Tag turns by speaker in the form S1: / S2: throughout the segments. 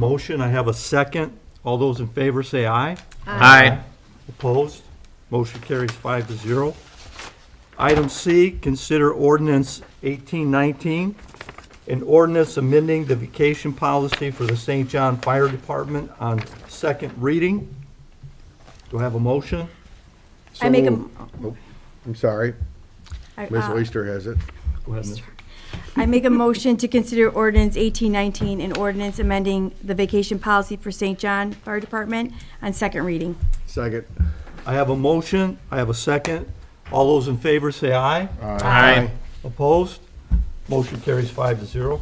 S1: Motion, I have a second. All those in favor say aye.
S2: Um,
S3: Aye.
S1: Opposed? Motion carries five to zero. Item C, consider ordinance 1819, an ordinance amending the vacation policy for the St. John Fire Department on second reading. Do I have a motion?
S2: I make a-
S4: So moved. Ah. Nope. oh, I'm sorry,
S2: I-
S4: Ms.
S2: uh,
S4: Oyster has it.
S1: Go ahead, Ms.
S2: I make a motion to consider ordinance 1819 and ordinance amending the vacation policy for St. John Fire Department on second reading.
S4: Second.
S1: I have a motion, I have a second. All those in favor say aye.
S3: Aye.
S1: Opposed? Motion carries five to zero.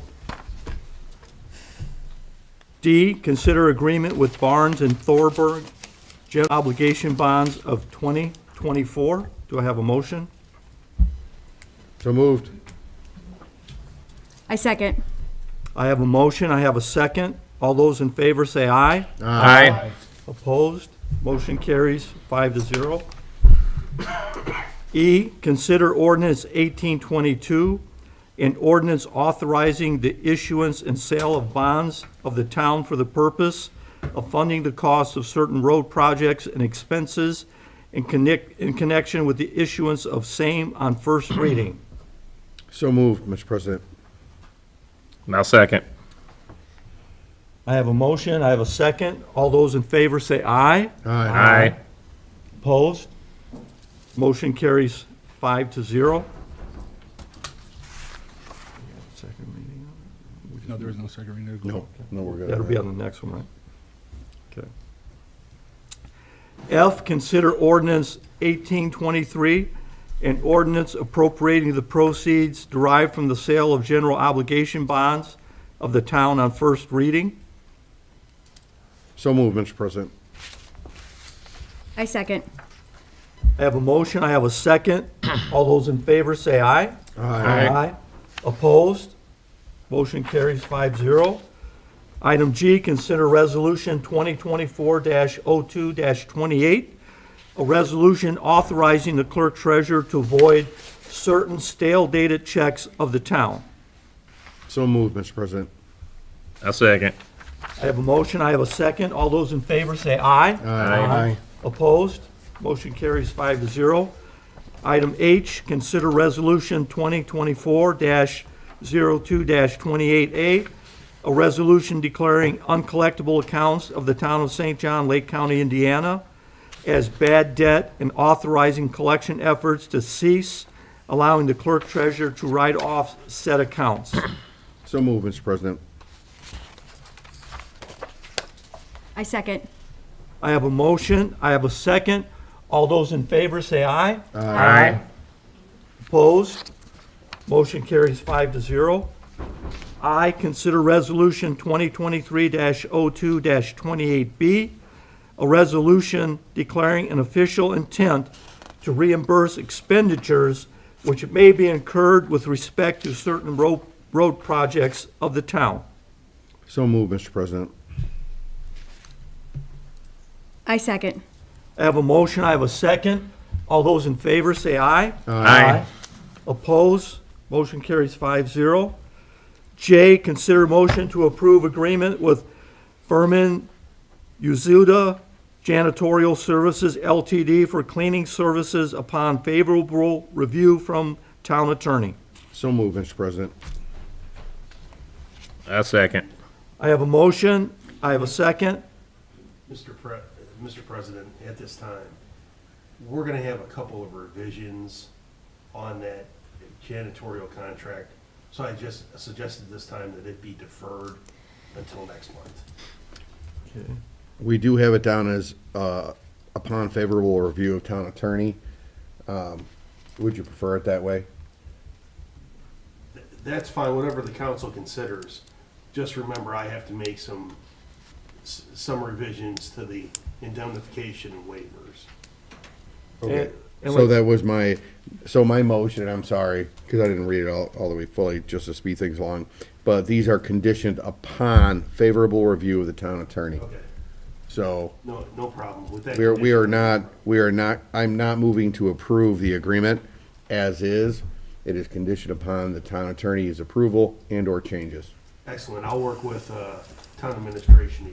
S1: D, consider agreement with Barnes and Thorburn general obligation bonds of 2024. Do I have a motion?
S4: So moved.
S2: I second.
S1: I have a motion, I have a second. All those in favor say aye.
S3: Aye.
S1: Opposed? Motion carries five to zero. E, consider ordinance 1822, an ordinance authorizing the issuance and sale of bonds of the town for the purpose of funding the cost of certain road projects and expenses in connect, in connection with the issuance of same on first reading.
S4: So moved, Mr. President.
S3: Now second.
S1: I have a motion, I have a second. All those in favor say aye.
S3: Aye.
S1: Opposed? Motion carries five to zero. Second reading.
S5: No, there is no second reading.
S4: No, no, we're good.
S1: That'll be on the next one, right? Okay. F, consider ordinance 1823, an ordinance appropriating the proceeds derived from the sale of general obligation bonds of the town on first reading.
S4: So moved, Mr. President.
S2: I second.
S1: I have a motion, I have a second. All those in favor say aye.
S3: Aye.
S1: Opposed? Motion carries 5-0. Item G, consider resolution twenty twenty-four 2 twenty-eight, a resolution authorizing the clerk treasurer to void certain stale dated checks of the town.
S4: So moved, Mr. President.
S3: Now second.
S1: I have a motion, I have a second. All those in favor say aye. Opposed? Motion carries five to zero. Item H, consider resolution 2024-02-28A, a resolution declaring uncollectible accounts of the town of St. John, Lake County, Indiana, as bad debt and authorizing collection efforts to cease, allowing the clerk treasurer to write off said accounts.
S4: So moved, Mr. President.
S2: I second.
S1: I have a motion, I have a second. All those in favor say aye.
S3: Aye.
S1: Opposed? Motion carries five to zero. I, consider Resolution 2023-02-28B, a resolution declaring an official intent to reimburse expenditures which may be incurred with respect to certain road, road projects of the town.
S4: So moved, Mr. President.
S2: I second.
S1: I have a motion, I have a second. All those in favor say aye.
S3: Aye.
S1: Oppose? Motion carries 5-0. J, consider motion to approve agreement with Furman Uzuda Janitorial Services LTD for cleaning services upon favorable review from town attorney.
S4: So moved, Mr. President.
S3: Now second.
S1: I have a motion, I have a second.
S6: Mr. Pre, Mr. President, at this time, we're gonna have a couple of revisions on that janitorial contract. So I just suggested this time that it be deferred until next month.
S4: We do have it down as, uh, upon favorable review of town attorney. Um, Would you prefer it that way?
S6: Th- That's fine, whatever the council considers. Just remember, I have to make some, s- some revisions to the indemnification and waivers.
S4: Okay.
S1: And
S4: So
S1: we-
S4: that was my, so my motion, I'm sorry, because I didn't read it all, all the way fully, just to speed things along. But these are conditioned upon favorable review of the town attorney.
S6: Okay,
S4: So
S6: no, no problem with that.
S4: we are, we are
S6: condition.
S4: not, we are not, I'm not moving to approve the agreement as is. It is conditioned upon the town attorney's approval and/or changes.
S6: Excellent, I'll work with, uh, town administration